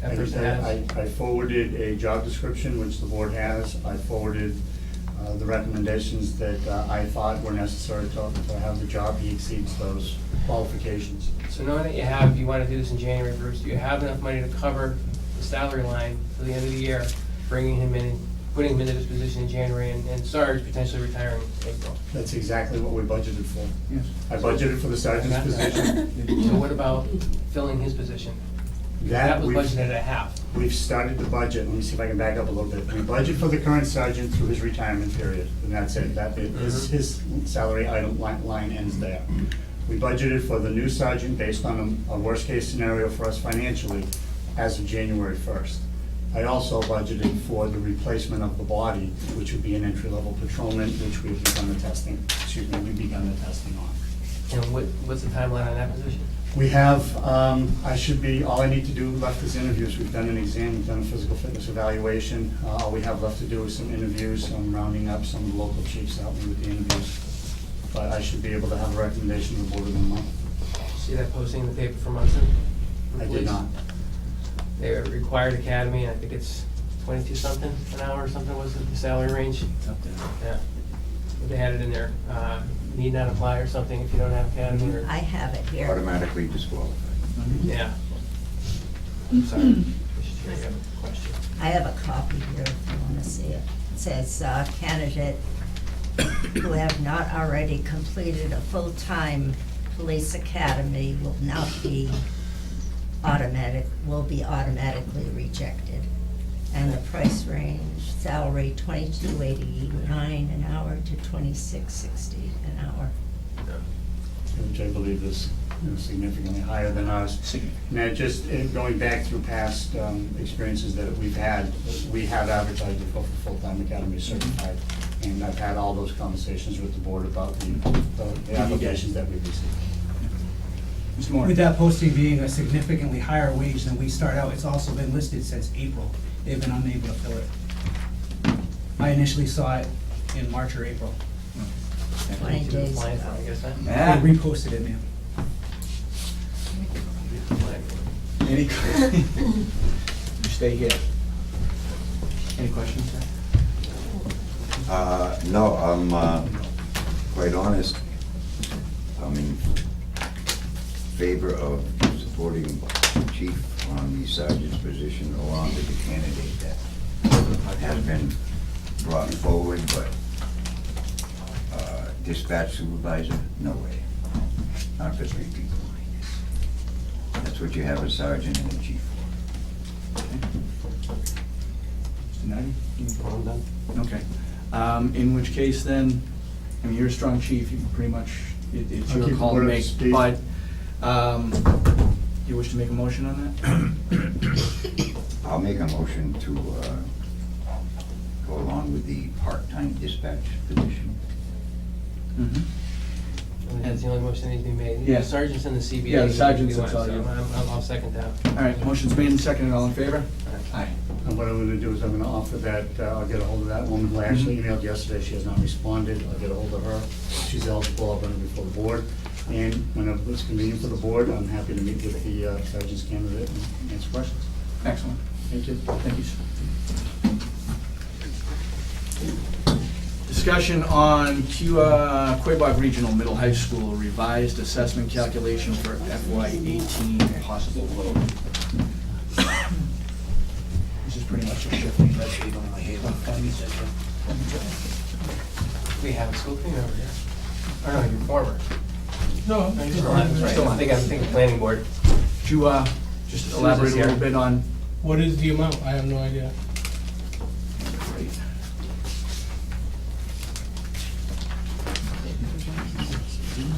That I- person I- has? I I forwarded a job description, which the board has. I forwarded uh, the recommendations that uh, I thought were necessary to to have the job. He exceeds those qualifications. So knowing that you have, you want to do this in January, Bruce, do you have enough money to cover the salary line for the end of the year, bringing him in, putting him into this position in January, and and Sarge potentially retiring in April? That's exactly what we budgeted for. Yes. I budgeted for the sergeant's position. So what about filling his position? That was we've- budgeted at half. We've started the budget, let me see if I can back up a little bit. We budget for the current sergeant through his retirement period, and that's it. That, it- his, his salary item line, line ends there. We budgeted for the new sergeant based on a, a worst-case scenario for us financially as of January first. I also budgeted for the replacement of the body, which would be an entry-level patrolman, which we've begun the testing, excuse me, we've begun the testing on. And what, what's the timeline on that position? We have, um, I should be, all I need to do left is interviews. We've done an exam, we've done a physical fitness evaluation. Uh, All we have left to do is some interviews, I'm rounding up some of the local chiefs to help me with the interviews. But I should be able to have a recommendation to the board within a month. See that posting in the paper for Munson? I did not. They were required academy, and I think it's twenty-two something an hour or something was the salary range. Yeah. But They had it in there, uh, need not apply or something if you don't have academy or, I have it here. automatically disqualified. yeah. Sorry. I should hear you have a question. I have a copy here if you want to see it. It says uh, candidate who have not already completed a full-time police academy will not be automatic, will be automatically rejected. And the price range, salary twenty-two eighty-nine an hour to twenty-six sixty an hour. which I believe is you know, significantly higher than ours. Significantly. Now, just eh, going back through past um, experiences that we've had, we have advertised for full-time academy certified, Mm-hmm. and I've had all those conversations with the board about the the Mm-hmm. applications that we've received. Mr. Moore? With that posting being a significantly higher wage than we start out, it's also been listed since April. They've been unable to fill it. I initially saw it in March or April. Twenty You didn't days apply for it, ago. I guess, huh? They Ah, reposted it, ma'am. You didn't apply for it. Any? You stay here. Any questions, sir? Uh, No, I'm uh, quite honest, I'm in favor of supporting chief on the sergeant's position along with the candidate that has been brought forward, but uh, dispatch supervisor, no way. Not for three people. That's what you have a sergeant and a chief for. Mr. Nagy? Okay. Um, In which case then, I mean, you're a strong chief, you can pretty much, it- it's I'll your keep call the board to up make. to speed. But um, you wish to make a motion on that? I'll make a motion to uh, go along with the part-time dispatch position. Mhm. And That's the only motion that needs to be made. Yeah. Sergeant's in the CBA. Yeah, the sergeant's, So that's all you- I'm- I'm- I'll second that. All right, motion's made and seconded, all in favor? Aye. And what I'm gonna do is I'm gonna offer that, uh, I'll get a hold of that woman who I actually emailed yesterday, she has not responded, I'll get a hold of her. She's eligible, I'll bring her before the board, and whenever it's convenient for the board, I'm happy to meet with the uh, sergeant's candidate and answer questions. Excellent. Thank you. Thank you, sir. Discussion on Q- uh, Quabog Regional Middle High School revised assessment calculation for FY eighteen possible vote. This is pretty much a shift. We have a school committee over here. Or Oh, no, you're former. No. No, you're still on, that's right. I think I'm thinking planning board. Could you uh, just elaborate a little bit on? What is the amount? I have no idea.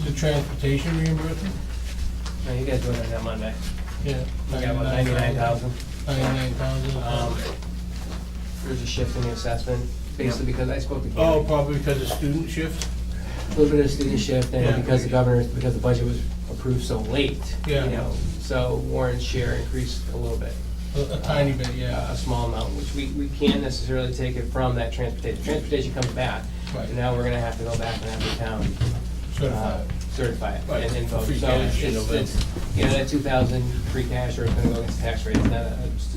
The transportation reimbursement? No, you guys doing it that Monday. Yeah. We got about ninety-nine thousand. Ninety-nine thousand. Um, There's a shift in the assessment, basically because I spoke to Oh, Gary. probably because of student shift? A little bit of student shift, Yeah. and because the governor, because the budget was approved so late, you Yeah. know, so Warren's share increased a little bit. A a tiny bit, a yeah. a small amount, which we, we can't necessarily take it from that transportation. Transportation comes back, Right. and now we're gonna have to go back and have the town Certified. uh, certify it Right. and then vote. Free So cash, it's, you know, it's, you know, that two thousand free cash or it's gonna go against tax rate, it's not a, it's